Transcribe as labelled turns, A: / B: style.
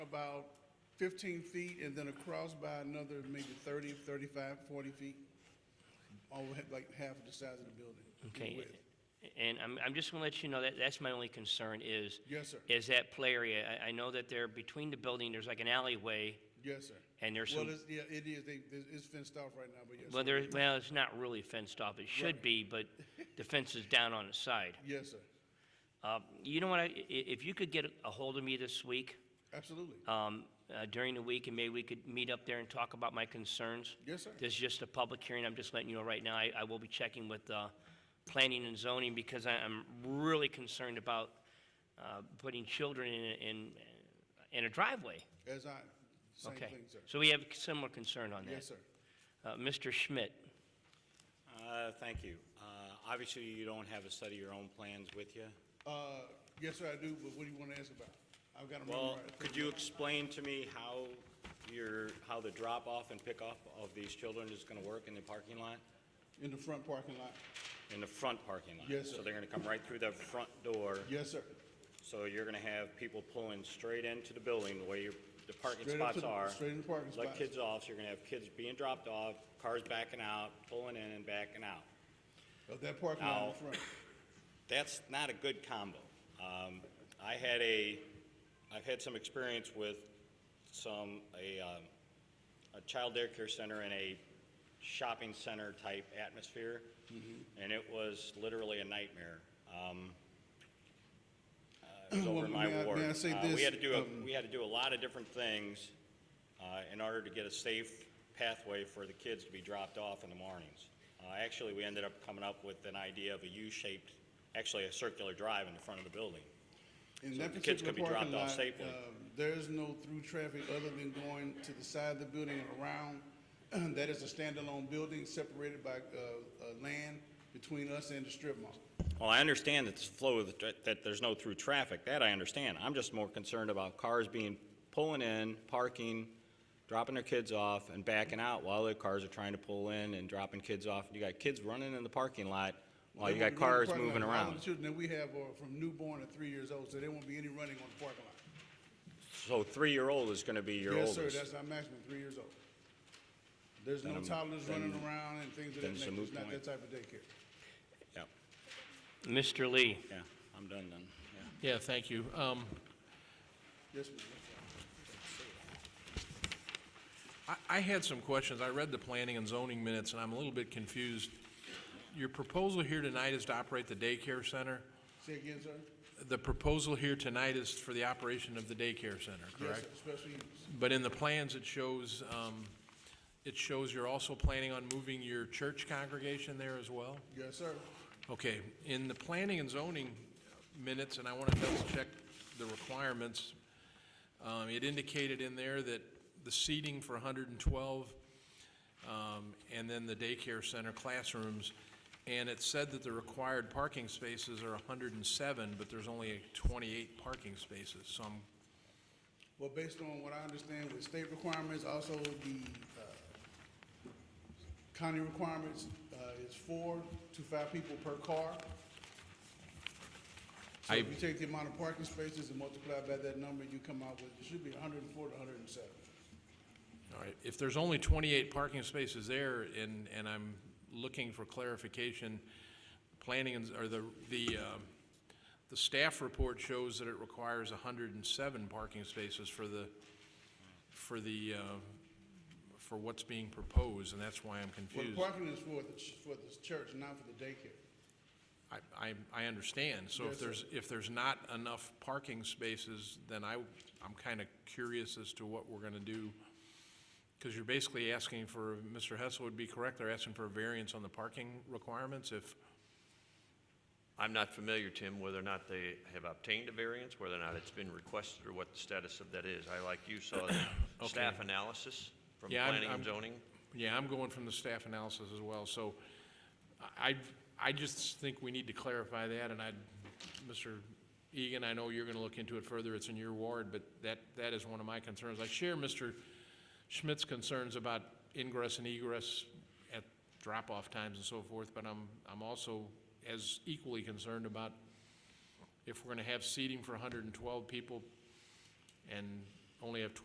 A: about fifteen feet and then across by another maybe 30, 35, 40 feet. Over like half of the size of the building. in
B: Okay,
A: width.
B: and I'm, I'm just gonna let you know that, that's my only concern is.
A: Yes, sir.
B: Is that play area. I, I know that there, between the building, there's like an alleyway,
A: Yes, sir.
B: and there's
A: Well,
B: some,
A: it's, yeah, it is, they, it's- it's fenced off right now, but yes.
B: well,
A: sir.
B: there, well, it's not really fenced off. It should
A: Right.
B: be, but the fence is down on the side.
A: Yes, sir,
B: Uh, you know what, I, i- if you could get a hold of me this week,
A: absolutely.
B: um, uh, during the week, and maybe we could meet up there and talk about my concerns.
A: Yes, sir.
B: This is just a public hearing, I'm just letting you know right now, I, I will be checking with, uh, planning and zoning, because I, I'm really concerned about, uh, putting children in, in, in a driveway.
A: As I, same
B: Okay.
A: thing, sir.
B: So we have a similar concern on that.
A: Yes, sir.
B: Uh, Mr. Schmidt,
C: Uh, Thank you. Uh, Obviously, you don't have a set of your own plans with you.
A: Uh, yes, sir, I do, but what do you want to ask about? I've got to
C: Well,
A: memorize.
C: could you explain to me how your, how the drop-off and pick-up of these children is going to work in the parking lot,
A: In the front parking lot?
C: in the front parking lot?
A: Yes, sir.
C: So they're going to come right through the front door,
A: Yes, sir.
C: so you're going to have people pulling straight into the building where your, the parking
A: Straight up to
C: spots
A: the-
C: are.
A: straight in the parking
C: Let
A: spots.
C: kids off, so you're going to have kids being dropped off, cars backing out, pulling in and backing out.
A: Of that parking lot in the
C: Now-
A: front.
C: That's not a good combo. Um, I had a, I've had some experience with some, a, um, a child daycare center in a shopping center type atmosphere,
A: Mm-hmm.
C: and it was literally a nightmare. Um, uh, It was over in
A: Well, may I-
C: my ward.
A: may I say
C: Uh,
A: this,
C: We had to do,
A: um,
C: a- we had to do a lot of different things uh, in order to get a safe pathway for the kids to be dropped off in the mornings. Uh, Actually, we ended up coming up with an idea of a U-shaped, actually a circular drive in the front of the building.
A: In
C: so
A: that
C: the kids
A: particular
C: could
A: parking
C: be dropped off
A: lot,
C: safely.
A: um, there is no through traffic other than going to the side of the building and around. That is a standalone building separated by, uh, uh, land between us and the strip mall.
C: Well, I understand that the flow of, the tra- that there's no through traffic, that I understand. I'm just more concerned about cars being, pulling in, parking, dropping their kids off and backing out while the cars are trying to pull in and dropping kids off. You got kids running in the parking lot while you
A: They
C: got
A: won't be running in the
C: cars
A: parking lot.
C: moving
A: All
C: around.
A: the children that we have are from newborn to three years old, so there won't be any running on the parking lot.
C: So three-year-old is gonna be your oldest.
A: Yes, sir, that's our maximum, three years old. There's no
C: Then I'm-
A: toddlers
C: then-
A: running around and things of that
C: then it's a
A: nature, it's
C: moot
A: not that
C: point.
A: type of daycare.
C: Yeah,
B: Mr. Lee.
C: yeah, I'm done then, yeah.
D: Yeah, thank you. Um,
A: Yes, ma'am.
D: I- I had some questions. I read the planning and zoning minutes, and I'm a little bit confused. Your proposal here tonight is to operate the daycare center?
A: Say again, sir?
D: The proposal here tonight is for the operation of the daycare center,
A: Yes,
D: correct?
A: sir, special use.
D: But in the plans, it shows, um, it shows you're also planning on moving your church congregation there as well?
A: Yes, sir.
D: Okay, in the planning and zoning minutes, and I want to double check the requirements, um, it indicated in there that the seating for 112, um, and then the daycare center classrooms, and it said that the required parking spaces are 107, but there's only 28 parking spaces, so I'm
A: Well, based on what I understand with state requirements, also the uh, county requirements, uh, is four to five people per car. So
D: I-
A: if you take the amount of parking spaces and multiply by that number, you come out with, it should be hundred and four to hundred and seven.
D: All right, if there's only 28 parking spaces there, and, and I'm looking for clarification, planning, and- or the, the, um, the staff report shows that it requires 107 parking spaces for the, for the, uh, for what's being proposed, and that's why I'm
A: Well,
D: confused.
A: the parking is for the, ch- for the church, not for the daycare.
D: I, I, I understand, so
A: Yes,
D: if
A: sir.
D: there's, if there's not enough parking spaces, then I, I'm kind of curious as to what we're gonna do. Because you're basically asking for, Mr. Hessel would be correct, they're asking for a variance on the parking requirements if,
E: I'm not familiar, Tim, whether or not they have obtained a variance, whether or not it's been requested, or what the status of that is. I, like you, saw the staff analysis from
D: Yeah, I'm-
E: planning and
D: I'm-
E: zoning.
D: yeah, I'm going from the staff analysis as well, so I, I just think we need to clarify that, and I, Mr. Egan, I know you're gonna look into it further, it's in your ward, but that, that is one of my concerns. I share Mr. Schmidt's concerns about ingress and egress at drop-off times and so forth, but I'm, I'm also as equally concerned about if we're gonna have seating for hundred and twelve people and only have